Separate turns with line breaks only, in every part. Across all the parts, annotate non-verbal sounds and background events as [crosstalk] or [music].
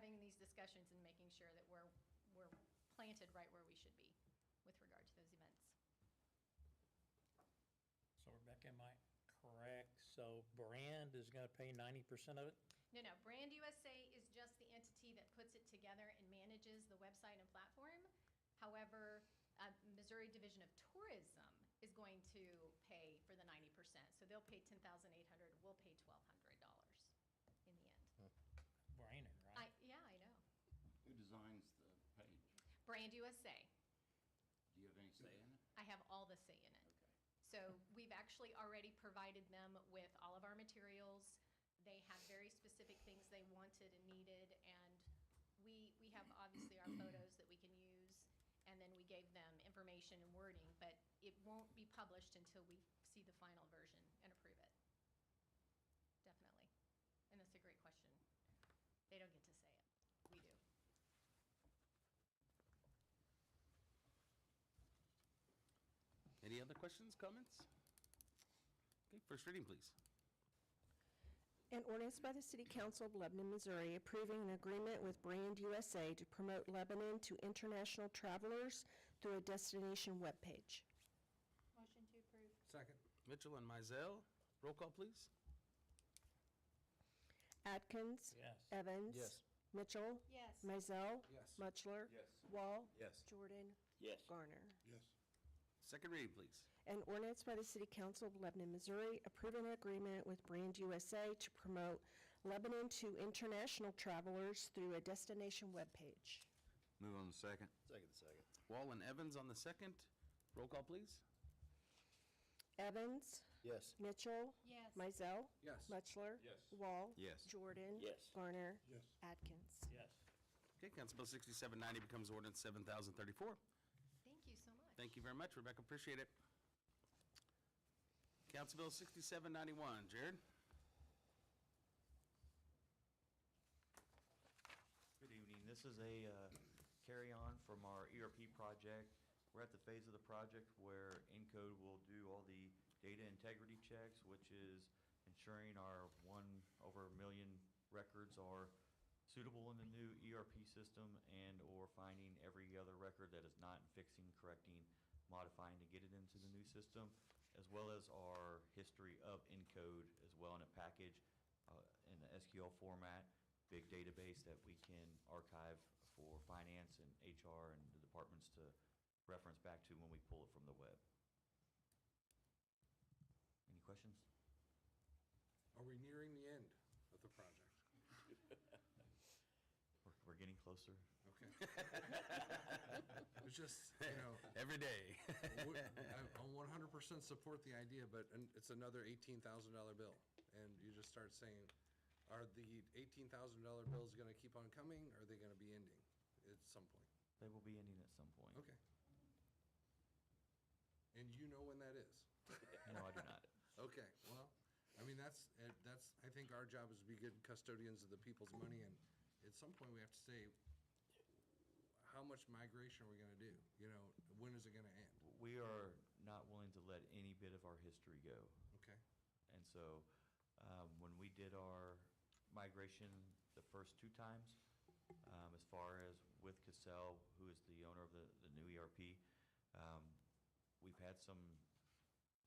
these discussions and making sure that we're, we're planted right where we should be with regard to those events.
So Rebecca, am I correct? So Brand is gonna pay ninety percent of it?
No, no, Brand USA is just the entity that puts it together and manages the website and platform. However, uh, Missouri Division of Tourism is going to pay for the ninety percent. So they'll pay ten thousand eight hundred, we'll pay twelve hundred dollars in the end.
Brainer,
I,
right?
yeah, I know.
Who designs the page?
Brand USA,
Do you have any say in it?
I have all the say in it.
Okay.
So we've actually already provided them with all of our materials. They had very specific things they wanted and needed, and we, we have obviously our photos that we can use, and then we gave them information and wording, but it won't be published until we see the final version and approve it. Definitely. And that's a great question. They don't get to say it. We do.
Any other questions, comments? Okay, first reading, please.
An ordinance by the City Council of Lebanon, Missouri approving an agreement with Brand USA to promote Lebanon to international travelers through a destination webpage.
Motion to approve.
Second. Mitchell and Mizell, roll call, please.
Atkins.
Yes.
Evans.
Yes.
Mitchell.
Yes.
Mizell.
Yes.
Mutchler.
Yes.
Wall.
Yes.
Jordan.
Yes.
Garner.
Yes,
Second reading, please.
An ordinance by the City Council of Lebanon, Missouri approving an agreement with Brand USA to promote Lebanon to international travelers through a destination webpage.
Move on the second.
Second, second. Wall and Evans on the second, roll call, please.
Evans.
Yes.
Mitchell.
Yes.
Mizell.
Yes.
Mutchler.
Yes.
Wall.
Yes.
Jordan.
Yes.
Garner.
yes,
Atkins.
Yes.
Okay, Council Bill 6790 becomes ordinance 7034.
Thank you so much.
Thank you very much, Rebecca, appreciate it. Council Bill 6791, Jared?
Good evening. This is a uh, carry-on from our ERP project. We're at the phase of the project where Encode will do all the data integrity checks, which is ensuring our one over a million records are suitable in the new ERP system and/or finding every other record that is not and fixing, correcting, modifying to get it into the new system, as well as our history of Encode as well in a package uh, in the SQL format big database that we can archive for finance and HR and the departments to reference back to when we pull it from the web. Any questions?
Are we nearing the end of the project?
We're, we're getting closer.
Okay.
[laughs]
It's just, you know,
[laughs] Every day.
w- I
[laughs]
I 100% support the idea, but an- it's another $18,000 bill. And you just start saying, are the $18,000 bills going to keep on coming? Are they going to be ending at some point?
They will be ending at some point.
Okay. And you know when that is?
No, I do not.
Okay, well, I mean, that's, eh, that's, I think our job is to be good custodians of the people's money, and at some point, we have to say, how much migration are we gonna do? You know, when is it gonna end?
We are not willing to let any bit of our history go.
Okay,
And so um, when we did our migration the first two times, um, as far as with Cassell, who is the owner of the, the new ERP, um, we've had some,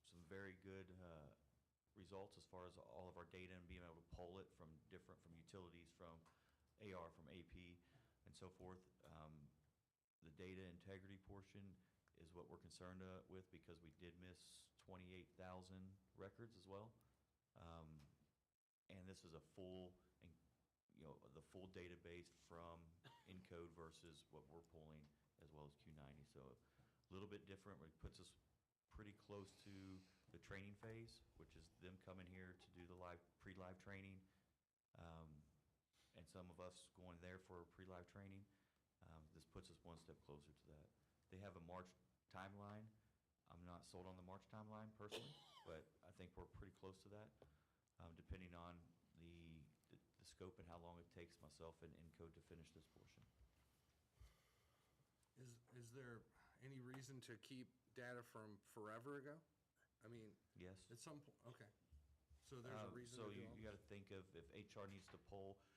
some very good uh, results as far as all of our data and being able to pull it from different, from utilities, from AR, from AP, and so forth. Um, the data integrity portion is what we're concerned uh, with because we did miss 28,000 records as well. Um, And this is a full, en- you know, the full database from Encode versus what we're pulling as well as Q90. So a little bit different, but it puts us pretty close to the training phase, which is them coming here to do the live, pre-live training. Um, and some of us going there for pre-live training. Um, This puts us one step closer to that. They have a March timeline. I'm not sold on the March timeline personally, but I think we're pretty close to that, um, depending on the, the- the scope and how long it takes myself and Encode to finish this portion.
is, is there any reason to keep data from forever ago? I mean,
Yes?
at some point, okay, so there's a
Um,
reason to
So
do
you,
all
you gotta
this?
think of if HR needs to pull